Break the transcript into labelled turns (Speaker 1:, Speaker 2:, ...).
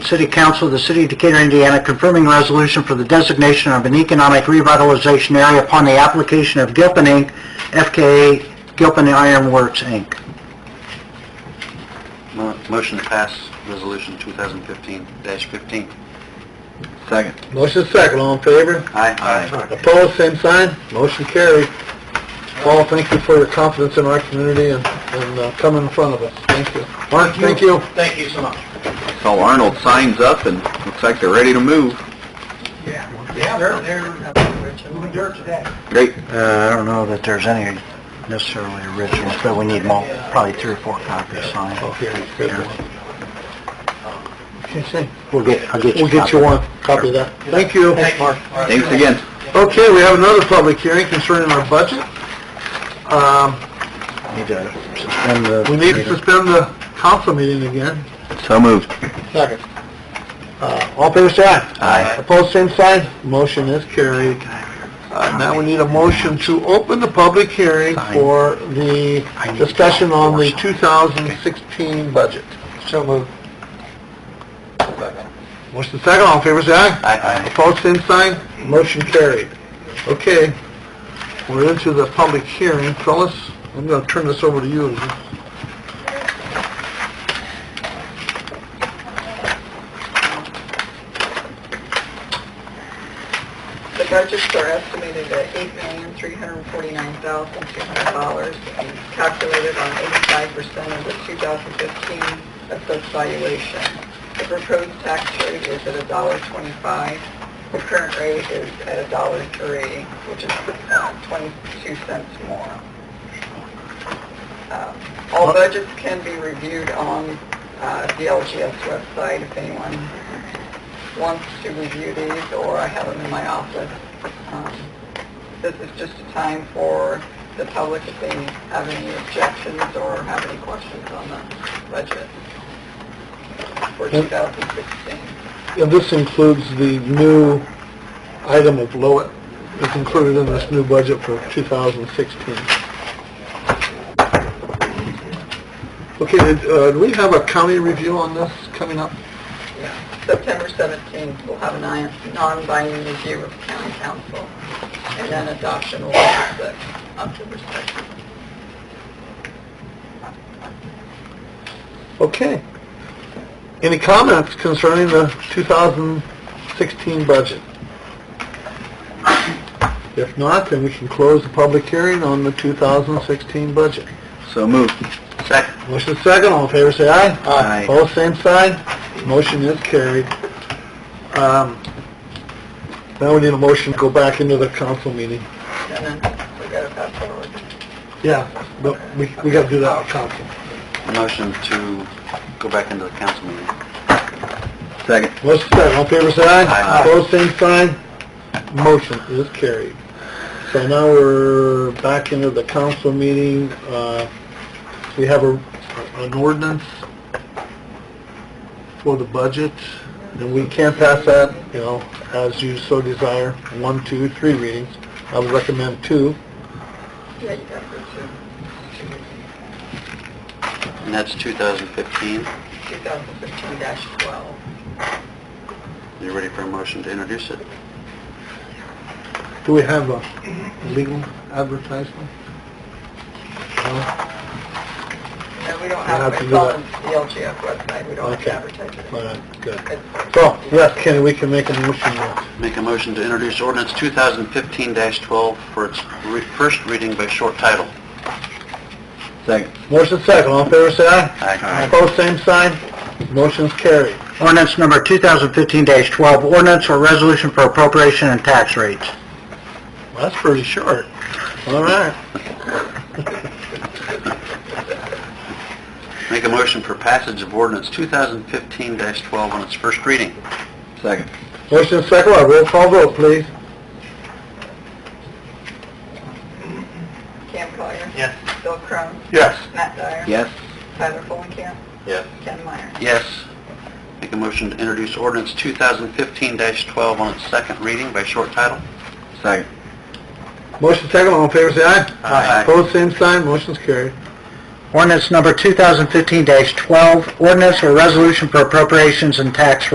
Speaker 1: City Council of the City of Decatur, Indiana, confirming resolution for the designation of an economic revitalization area upon the application of Gilpin Inc., FKA Gilpin Iron Works, Inc.
Speaker 2: Motion to pass Resolution 2015-15.
Speaker 1: Second.
Speaker 3: Motion second, all in favor?
Speaker 2: Aye. Aye.
Speaker 3: Opposed, same sign, motion carried. Paul, thank you for your confidence in our community and, and uh, coming in front of us, thank you. Mark, thank you. Thank you so much.
Speaker 2: So Arnold signs up and looks like they're ready to move.
Speaker 3: Yeah, yeah, they're, they're moving dirt today.
Speaker 2: Great.
Speaker 1: Uh, I don't know that there's any necessarily originals, but we need more, probably three or four copies signed.
Speaker 3: Oh,
Speaker 1: We'll get, I'll get you.
Speaker 3: We'll get you one, copy of that. Thank you. Thanks, Mark.
Speaker 2: Thanks again.
Speaker 3: Okay, we have another public hearing concerning our budget. Um,
Speaker 1: Need to suspend the...
Speaker 3: we need to suspend the council meeting again.
Speaker 2: So moved.
Speaker 3: Second. Uh, all papers say aye.
Speaker 2: Aye.
Speaker 3: Opposed, same sign. Motion is carried. Uh, now we need a motion to open the public hearing
Speaker 1: Sign.
Speaker 3: for the
Speaker 1: I need to
Speaker 3: discussion on the
Speaker 1: sign.
Speaker 3: 2016 budget. So moved. Motion second, all in favor, say aye.
Speaker 2: Aye.
Speaker 3: Opposed, same sign. Motion carried. Okay, we're into the public hearing. Phyllis, I'm gonna turn this over to you.
Speaker 4: The budgets are estimated at eight million, three hundred and forty-nine thousand, two hundred dollars, and calculated on eighty-five percent of the two thousand fifteen assessed valuation. The proposed tax rate is at a dollar twenty-five. The current rate is at a dollar three, which is uh, twenty-two cents more. Um, All budgets can be reviewed on uh, the LGS website if anyone wants to review these, or I have them in my office. Um, This is just a time for the public if they have any objections or have any questions on the budget for 2016.
Speaker 3: And this includes the new item of Lowit, it's included in this new budget for 2016. Okay, did, uh, do we have a county review on this coming up?
Speaker 4: Yeah. September 17th, we'll have a non- non-binding review of county council, and then adoption will be the October 2nd.
Speaker 3: Okay. Any comments concerning the 2016 budget? If not, then we can close the public hearing on the 2016 budget.
Speaker 2: So moved. Second.
Speaker 3: Motion second, all in favor, say aye.
Speaker 2: Aye.
Speaker 3: Opposed, same sign. Motion is carried. Um, Now we need a motion to go back into the council meeting.
Speaker 4: And then we got to pass forward.
Speaker 3: Yeah, but we, we gotta do that at council.
Speaker 2: Motion to go back into the council meeting. Second.
Speaker 3: Motion second, all in favor, say aye.
Speaker 2: Aye.
Speaker 3: Opposed, same sign. Motion is carried. So now we're back into the council meeting. Uh, We have a, an ordinance for the budget, and we can pass that, you know, as you so desire, one, two, three readings. I would recommend two.
Speaker 4: Yeah, you got to go to
Speaker 2: And that's 2015.
Speaker 4: 2015-12.
Speaker 2: You ready for a motion to introduce it?
Speaker 3: Do we have a legal advertisement? No?
Speaker 4: And we don't
Speaker 3: We'll have
Speaker 4: have,
Speaker 3: to
Speaker 4: it's
Speaker 3: do
Speaker 4: on
Speaker 3: that.
Speaker 4: the LGF website, we don't have
Speaker 3: Okay.
Speaker 4: to advertise it.
Speaker 3: All right, good.
Speaker 4: It's-
Speaker 3: So, yes, Kenny, we can make a motion now.
Speaker 2: Make a motion to introduce ordinance 2015-12 for its re- first reading by short title.
Speaker 1: Second.
Speaker 3: Motion second, all in favor, say aye.
Speaker 2: Aye.
Speaker 3: Opposed, same sign. Motion's carried.
Speaker 1: Ordinance number 2015-12, ordinance or resolution for appropriation and tax rates.
Speaker 3: Well, that's pretty short. All right.
Speaker 2: Make a motion for passage of ordinance 2015-12 on its first reading. Second.
Speaker 3: Motion second, by roll call vote, please.
Speaker 4: Cam Collier.
Speaker 2: Yes.
Speaker 4: Bill Crown.
Speaker 3: Yes.
Speaker 4: Matt Dyer.
Speaker 2: Yes.
Speaker 4: Tyler Fulenkamp.
Speaker 2: Yes.
Speaker 4: Ken Meyer.
Speaker 2: Yes. Make a motion to introduce ordinance 2015-12 on its second reading by short title. Second.
Speaker 3: Motion second, all in favor, say aye.
Speaker 2: Aye.
Speaker 3: Opposed, same sign, motion's carried.
Speaker 1: Ordinance number 2015-12, ordinance or resolution for appropriations and tax